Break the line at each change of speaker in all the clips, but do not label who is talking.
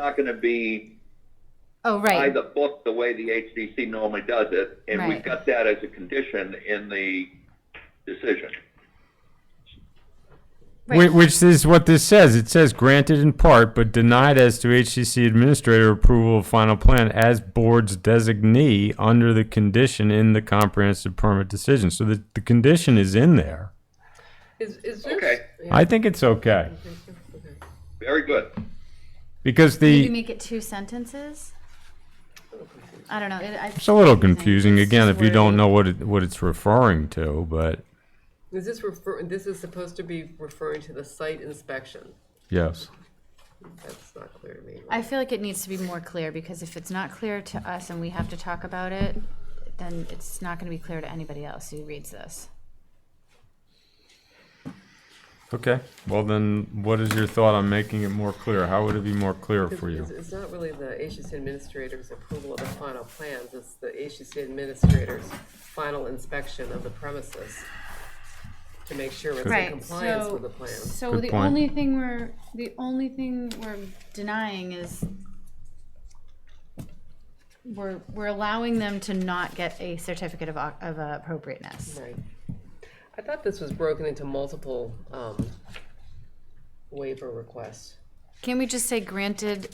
not going to be
Oh,
by
right.
the book the way the HDC normally does it, and we've
Right.
got that as a condition in the decision.
Right.
Whi- Which is what this says. It says granted in part, but denied as to HCC administrator approval of final plan as board's designee under the condition in the comprehensive permit decision. So the, the condition is in there.
Is, is this?
Okay.
yeah,
I think it's okay
okay.
Very good.
because
Did you
the,
make it two sentences? I don't know. It, I,
it's a little confusing again if you don't know what it, what it's referring to, but
Is this refer, this is supposed to be referring to the site inspection?
yes.
That's not clear to me.
I feel like it needs to be more clear because if it's not clear to us and we have to talk about it, then it's not going to be clear to anybody else who reads this.
Okay, well then, what is your thought on making it more clear? How would it be more clear for you?
It's, it's not really the HCC administrator's approval of the final plans, it's the HCC administrator's final inspection of the premises to make sure it's in compliance with the plans.
So
Good
the
point.
only thing we're, the only thing we're denying is we're, we're allowing them to not get a certificate of, o- of appropriateness.
Right. I thought this was broken into multiple, um, waiver requests.
Can we just say granted,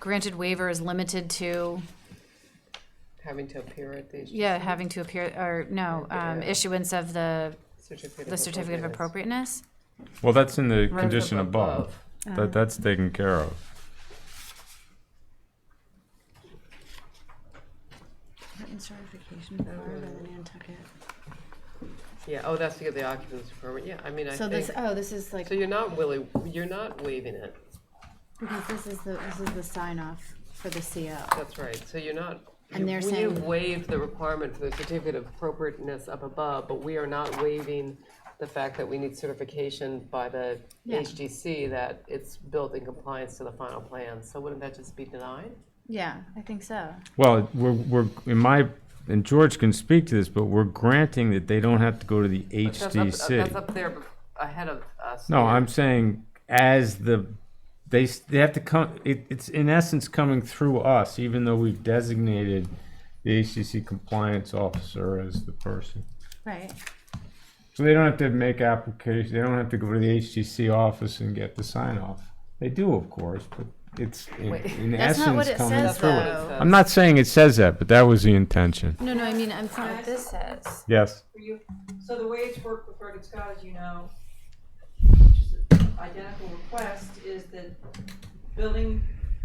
granted waiver is limited to,
having to appear at the
yeah, having to appear, or no, um, issuance of the,
certificate
the certificate of appropriateness?
Well, that's in the
Right
condition
up
above. That, that's taken care of.
Yeah, oh, that's to get the occupancy permit, yeah, I mean, I
So
think,
this,
so
oh, this is like,
you're not really, you're not waiving it,
because this is the, this is the sign off for the CO.
that's right, so you're not.
And
you-
they're
we
saying-
waived the requirement for the certificate of appropriateness up above, but we are not waiving the fact that we need certification by the
Yeah.
HGC that it's built in compliance to the final plan, so wouldn't that just be denied?
Yeah, I think so.
Well, we're, we're, in my, and George can speak to this, but we're granting that they don't have to go to the
That's up- That's
HDC.
up there bef- ahead of us.
No,
here.
I'm saying as the, they, s- they have to come, it, it's in essence coming through us, even though we've designated the HDC compliance officer as the person.
Right.
So they don't have to make application, they don't have to go to the HDC office and get the sign off. They do, of course, but it's in,
Wait.
in
That's not what
essence
it
coming
says,
through us.
though.
I'm not saying it says that, but that was the intention.
No, no, I mean, I'm fine with this says.
Yes.
for you. So the way it's worked with Frederick Scott, as you know, which is an identical request, is that building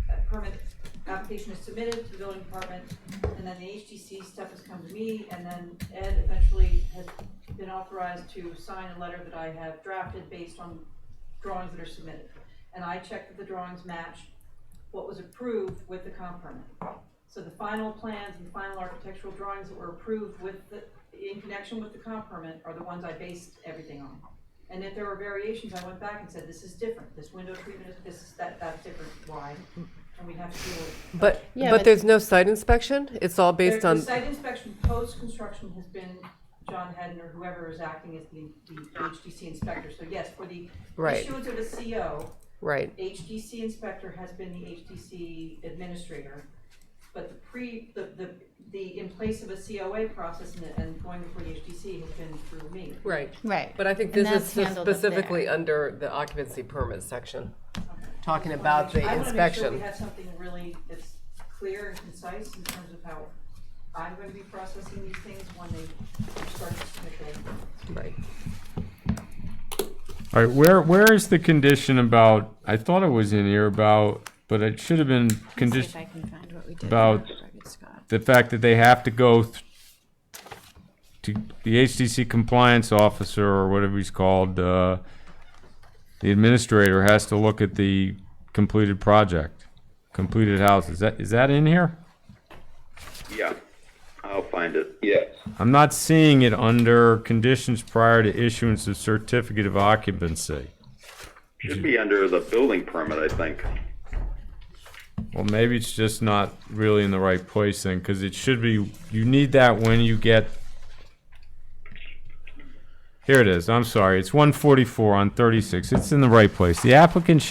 uh, permit application is submitted to the building department, and then the HTC stuff has come to me, and then Ed eventually has been authorized to sign a letter that I have drafted based on drawings that are submitted. And I check that the drawings match what was approved with the comp permit. So the final plans and final architectural drawings that were approved with the, in connection with the comp permit are the ones I based everything on. And if there were variations, I went back and said, this is different, this window treatment is, this is, that, that's different, why? And we have to deal with.
But,
Yeah,
but
but-
there's no site inspection? It's all based
There-
on,
The site inspection post-construction has been John Hedden or whoever is acting as the, the HDC inspector, so yes, for the
Right.
issuance of a CO,
right,
HDC inspector has been the HDC administrator, but the pre, the, the, the in place of a COA process and, and going before the HDC has been through me.
right.
Right.
But I think
And
this is
that's handled up
specifically
there.
under the occupancy permit section,
Okay.
talking about the
I wanna make sure we
inspection.
have something really that's clear and concise in terms of how I'm gonna be processing these things when they start to submit their
Right.
All right, where, where is the condition about, I thought it was in here about, but it should have been
See if
condition,
I can find what we did.
about-
for Frederick Scott.
the fact that they have to go th- to the HDC compliance officer or whatever he's called, uh, the administrator has to look at the completed project, completed house. Is that, is that in here?
Yeah, I'll find it. Yes.
I'm not seeing it under conditions prior to issuance of certificate of occupancy.
Should be under the building permit, I think.
Well, maybe it's just not really in the right place then, because it should be, you need that when you get Here it is, I'm sorry, it's one forty-four on thirty-six, it's in the right place. The applicant